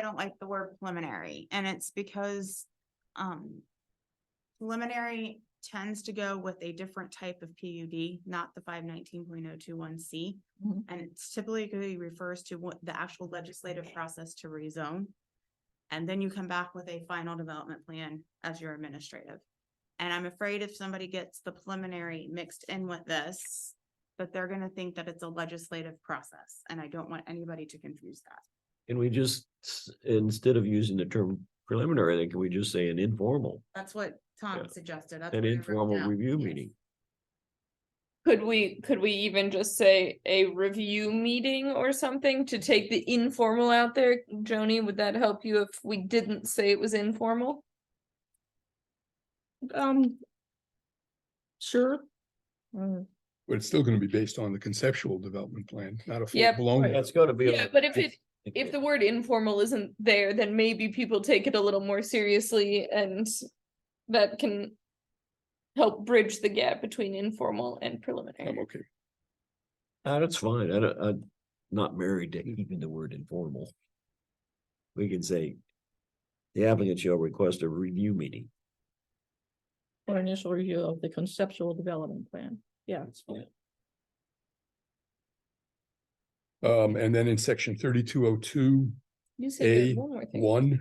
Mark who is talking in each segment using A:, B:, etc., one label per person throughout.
A: don't like the word preliminary, and it's because, um. Preliminary tends to go with a different type of PUD, not the five nineteen point oh two one C.
B: Mhm.
A: And it typically refers to what the actual legislative process to rezone. And then you come back with a final development plan as your administrative. And I'm afraid if somebody gets the preliminary mixed in with this, that they're gonna think that it's a legislative process, and I don't want anybody to confuse that.
C: Can we just, s- instead of using the term preliminary, then can we just say an informal,
A: That's what
C: Yeah.
A: Tom suggested. That's
C: an
A: what I wrote
C: informal
A: down.
C: review
A: Yes.
C: meeting?
B: Could we, could we even just say a review meeting or something to take the informal out there? Joni, would that help you if we didn't say it was informal? Um. Sure.
D: Mm,
E: But it's still gonna be based on the conceptual development plan, not a full
B: Yep.
E: blown.
C: That's gotta be.
B: Yeah, but if it, if the word informal isn't there, then maybe people take it a little more seriously and that can help bridge the gap between informal and
E: I'm
B: preliminary.
E: okay.
C: Ah, That's fine, I don't, I'm not married to even the word informal. We can say, the applicant shall request a review meeting.
D: Or initial review of the conceptual development plan. Yeah.
E: Um, and then in section thirty-two oh two,
B: You said there's
E: A
B: one more thing.
E: one.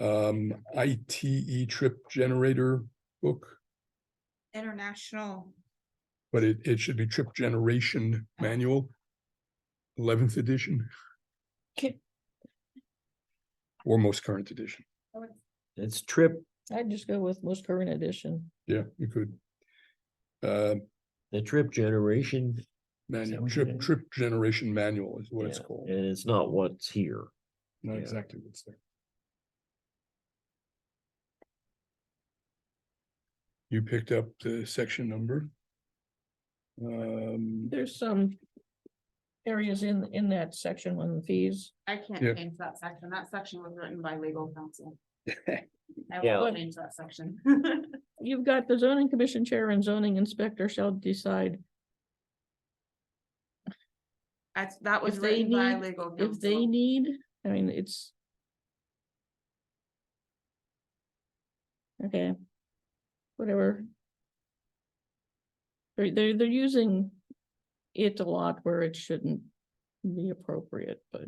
E: Um, ITE trip generator book,
A: International,
E: but it, it should be trip generation manual. Eleventh edition.
B: Okay.
E: Or most current edition.
C: It's trip,
D: I'd just go with most current edition.
E: Yeah, you could. Uh,
C: the trip generation. is that
E: manual,
C: what you
E: trip,
C: did?
E: trip generation manual is what it's
C: Yeah,
E: called.
C: And it's not what's here.
E: Not
C: yeah.
E: exactly what's there. You picked up the section number. Um,
D: There's some areas in, in that section on the fees.
A: I can't
E: Yeah.
A: change that section. That section was written by legal counsel. I
C: Yeah.
A: will change that section.
D: You've got the zoning commission chair and zoning inspector shall decide
A: That's, that was
D: If they
A: written by
D: need-
A: legal
D: if they
A: counsel.
D: need, I mean, it's. Okay. Whatever. They're, they're, they're using it a lot where it shouldn't be appropriate, but.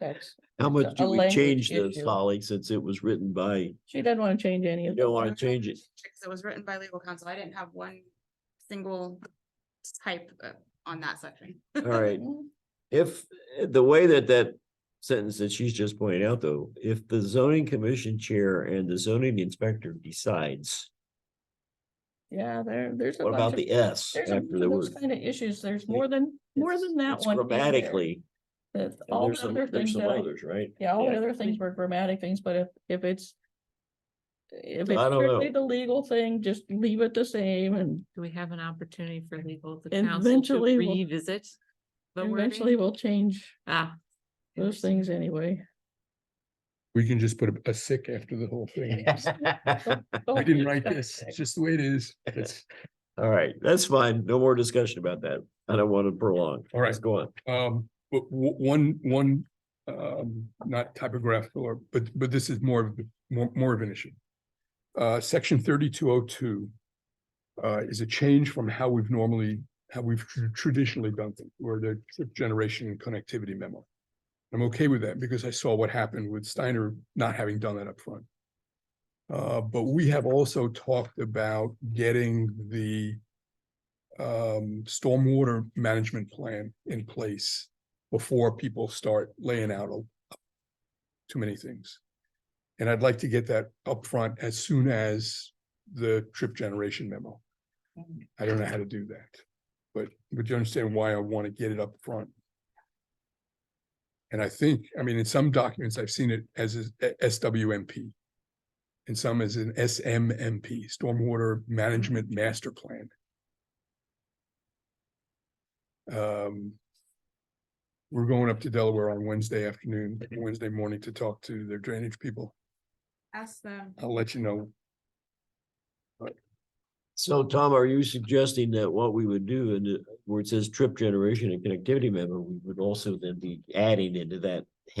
D: That's,
C: How much
D: a
C: do we
D: language
C: change this,
D: issue.
C: Holly, since it was written by,
D: she doesn't want to change any
C: you
D: of it.
C: don't wanna change it?
A: Because It was written by legal counsel. I didn't have one single type uh, on that section.
C: All right, if, eh, the way that that sentence that she's just pointed out, though, if the zoning commission chair and the zoning inspector decides,
D: Yeah, there, there's. a
C: what
D: bunch
C: about
D: of-
C: the S
D: There's a
C: after the
D: bunch
C: word?
D: of kind of issues. There's
C: Yeah.
D: more than, more
C: It's-
D: than that
C: it's
D: one. in there.
C: Grammatically,
D: That's
C: and
D: all
C: there's
D: the
C: some,
D: other
C: there's
D: things
C: some
D: that I
C: others, right?
D: Yeah, all
C: Yeah.
D: the other things were grammatic things, but if, if it's. If it's
C: I don't
D: strictly
C: know.
D: the legal thing, just leave it the same and
F: Do we have an opportunity for legal, the
D: And
F: council to
D: eventually we'll-
F: revisit? the
D: eventually
F: wording?
D: we'll change
F: Ah.
D: those
F: interesting.
D: things anyway.
E: we can just put a- a sick after the whole thing. I didn't write this, it's just the way it is. It's,
C: All right, that's fine. No more discussion about that. I don't want to prolong.
E: All right.
C: Let's Go on.
E: um, but w- one, one, um, not typographical, or, but, but this is more of, the- more, more of an issue. Uh, section thirty-two oh two uh, is a change from how we've normally, how we've tr- traditionally done things, where the trip generation and connectivity memo. I'm okay with that because I saw what happened with Steiner not having done that up front. Uh, but we have also talked about getting the um, stormwater management plan in place before people start laying out a- too many things. And I'd like to get that upfront as soon as the trip generation memo. I don't know how to do that, but would you understand why I want to get it up front? And I think, I mean, in some documents, I've seen it as a a SWMP. And some as an SMMP, Stormwater Management Master Plan. Um. We're going up to Delaware on Wednesday afternoon, Wednesday morning to talk to their drainage people.
A: Ask them.
E: I'll let you know.
C: So Tom, are you suggesting that what we would do and where it says trip generation and connectivity memo, we would also then be adding into that